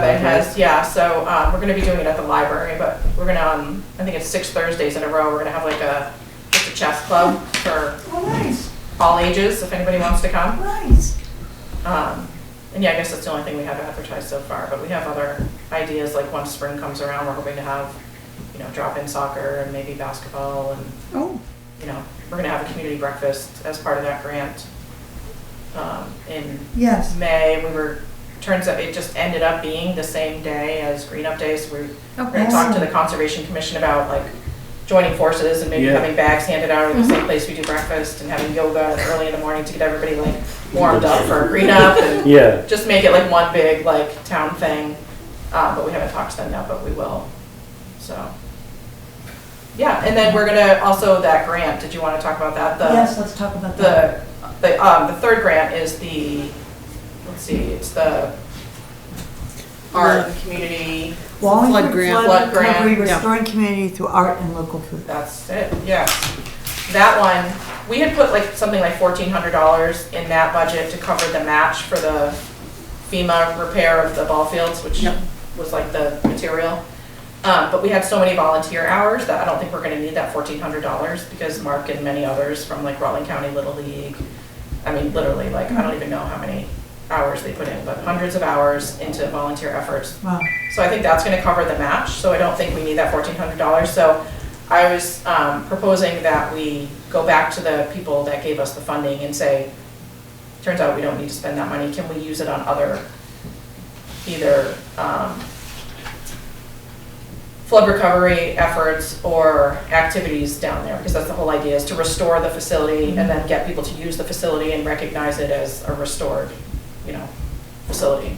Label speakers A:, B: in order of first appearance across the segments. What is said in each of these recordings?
A: has, yeah, so, um, we're gonna be doing it at the library, but we're gonna, um, I think it's six Thursdays in a row, we're gonna have like a, just a chess club for
B: Oh, nice,
A: all ages, if anybody wants to come.
B: nice.
A: Um, and yeah, I guess that's the only thing we have advertised so far, but we have other ideas, like once spring comes around, we're hoping to have, you know, drop-in soccer and maybe basketball and
B: Oh,
A: you know, we're gonna have a community breakfast as part of that grant. Um, in
B: yes.
A: May, we were, turns out it just ended up being the same day as Green Up Day, so we we're
C: Okay.
A: gonna Oh, talk to the Conservation Commission about like joining forces and maybe
D: Yeah.
A: having bags handed out at the same place we do breakfast and having yoga early in the morning to get everybody like warmed up for Green Up and
D: Yeah,
A: just make it like one big like town thing. Um, but we haven't talked to them yet, but we will. So. Yeah, and then we're gonna, also that grant, did you wanna talk about that? The-
B: Yes, let's talk about that.
A: The, the, um, the third grant is the, let's see, it's the art and community,
B: Wallingford
C: Flood grant.
A: Flood
B: Flood
A: grant.
B: Recovery,
C: Yeah.
B: restoring community through art and local food.
A: that's it, yeah. That one, we had put like, something like fourteen hundred dollars in that budget to cover the match for the FEMA repair of the ball fields, which
C: Yep.
A: was like the material. Uh, but we had so many volunteer hours that I don't think we're gonna need that fourteen hundred dollars because Mark and many others from like Rutland County Little League, I mean, literally, like, I don't even know how many hours they put in, but hundreds of hours into volunteer efforts
B: Wow,
A: so I think that's gonna cover the match, so I don't think we need that fourteen hundred dollars, so I was, um, proposing that we go back to the people that gave us the funding and say, turns out we don't need to spend that money, can we use it on other, either, um, flood recovery efforts or activities down there, because that's the whole idea, is to restore the facility and then get people to use the facility and recognize it as a restored, you know, facility.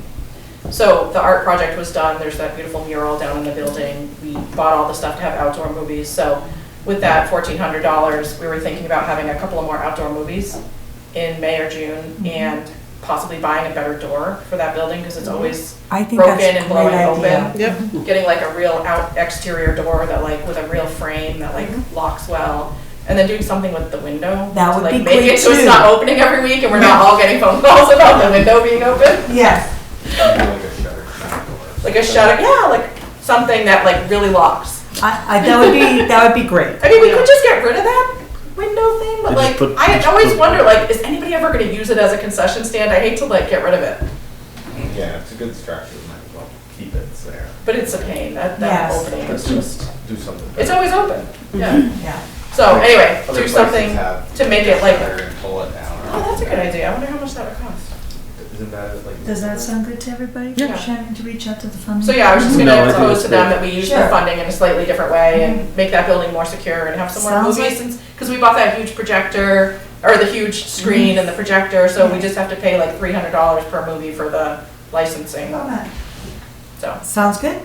A: So the art project was done, there's that beautiful mural down in the building, we bought all the stuff to have outdoor movies, so with that fourteen hundred dollars, we were thinking about having a couple of more outdoor movies in May or
B: Mm-hmm.
A: June, and possibly buying a better door for that building, because
B: Mm-hmm.
A: it's always
B: I think
A: broken
B: that's a
A: and blowing
B: great idea.
A: open.
C: Yep.
A: Getting like a real out exterior door that like, with a real frame that like locks well, and then doing something with the window.
B: Mm-hmm. That
A: to,
B: would
A: like,
B: be
A: make
B: great,
A: it So it's
B: too.
A: not opening every week, and we're not all getting phone calls about the window being open
B: Yes,
A: like a shutter, yeah, like something that like really locks.
B: I, I, that would be, that would be great.
A: I mean, we could just get rid of that window thing, but
D: They just
A: like,
D: put-
A: I
D: just
A: always
D: put-
A: wonder, like, is anybody ever gonna use it as a concession stand? I hate to like get rid of it,
E: Yeah, it's a good structure, might as well keep it there.
A: but it's a pain, that, that
B: Yes. Mm-hmm.
A: opening
E: Let's
A: is
E: do,
A: just,
E: do something.
A: it's always open, yeah.
B: Yeah,
A: So anyway,
E: Other
A: do
E: places
A: something
E: have
A: to make it like,
E: shutter and Pull it down.
A: oh, that's a good idea, I wonder how much that would cost.
E: Isn't that like?
B: does that sound good to everybody?
A: Yeah.
B: Shannon, to reach out to the funding?
A: So yeah, I was just
D: No, I
A: gonna
D: think
A: propose
D: it's
A: to them
D: great.
A: that we use the
B: Sure. Mm-hmm.
A: funding in a slightly different way and make that building more secure and have some more
B: Sounds
A: movies
B: like-
A: since, because we bought that huge projector, or the huge
B: Mm-hmm.
A: screen and the projector, so we just have to pay like three hundred dollars per movie for the licensing,
B: All right.
A: so,
B: Sounds good?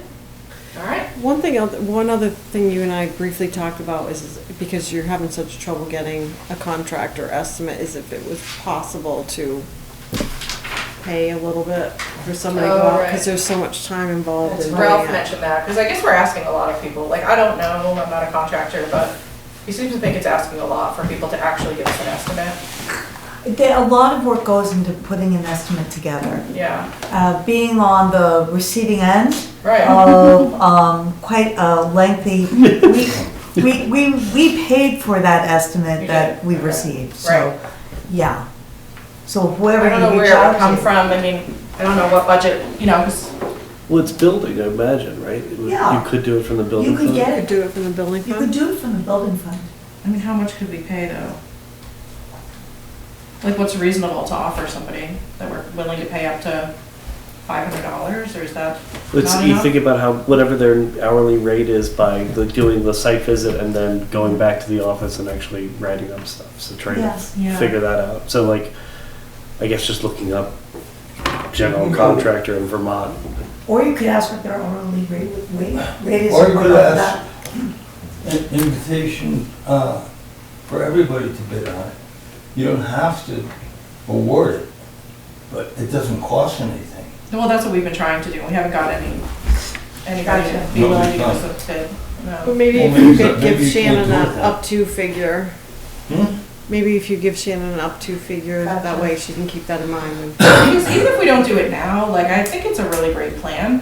A: alright.
C: One thing, oth- one other thing you and I briefly talked about is, is because you're having such trouble getting a contractor estimate, is if it was possible to pay a little bit for somebody to go
A: Oh,
C: out,
A: right.
C: because there's so much time involved in
A: Ralph
C: doing it.
A: mentioned that, because I guess we're asking a lot of people, like, I don't know, I'm not a contractor, but he seems to think it's asking a lot for people to actually give us an estimate,
B: There, a lot of work goes into putting an estimate together.
A: yeah,
B: Uh, being on the receiving end
A: right,
B: of um, quite a lengthy, we, we, we, we paid for that estimate
A: You
B: that
A: did,
B: we
A: okay.
B: received,
A: Right.
B: so, yeah. So
A: I
B: whoever
A: don't know
B: you reach
A: where it would
B: out
A: come
B: to.
A: from, I mean, I don't know what budget, you know, 'cause
D: well, it's building, I imagine, right? It would-
B: Yeah.
D: You could do it from the building.
B: You could
D: fund.
C: You
B: get
C: could
B: it,
C: do it from the building
B: you could
C: fund.
B: do it from the building fund.
A: I mean, how much could we pay though? Like, what's reasonable to offer somebody that we're willing to pay up to five hundred dollars, or is that?
D: It's,
A: Not
D: you
A: enough?
D: think about how, whatever their hourly rate is by the, doing the site visit and then going back to the office and actually writing up stuff, so trying to
B: Yes.
A: Yeah.
D: figure that out. So like, I guess just looking up general contractor in Vermont.
B: Or you could ask what their hourly rate, rate, rate is.
F: Or you could
B: about
F: ask- an invitation uh, for everybody to bid on it. You don't have to award it, but it doesn't cost anything.
A: Well, that's what we've been trying to do, we haven't got any, anybody to be
F: Gotcha.
A: willing to give us a bid,
C: But
A: no.
C: maybe if
F: Oh. Well,
C: you
F: maybe
C: could
F: that-
C: give
F: maybe you
C: Shannon
F: can't do it
C: an
F: then.
C: up-to figure,
F: Hmm?
C: maybe if you give Shannon an up-to figure, that way she can keep that in mind when
A: Because even if we don't do it now, like, I think it's a really great plan,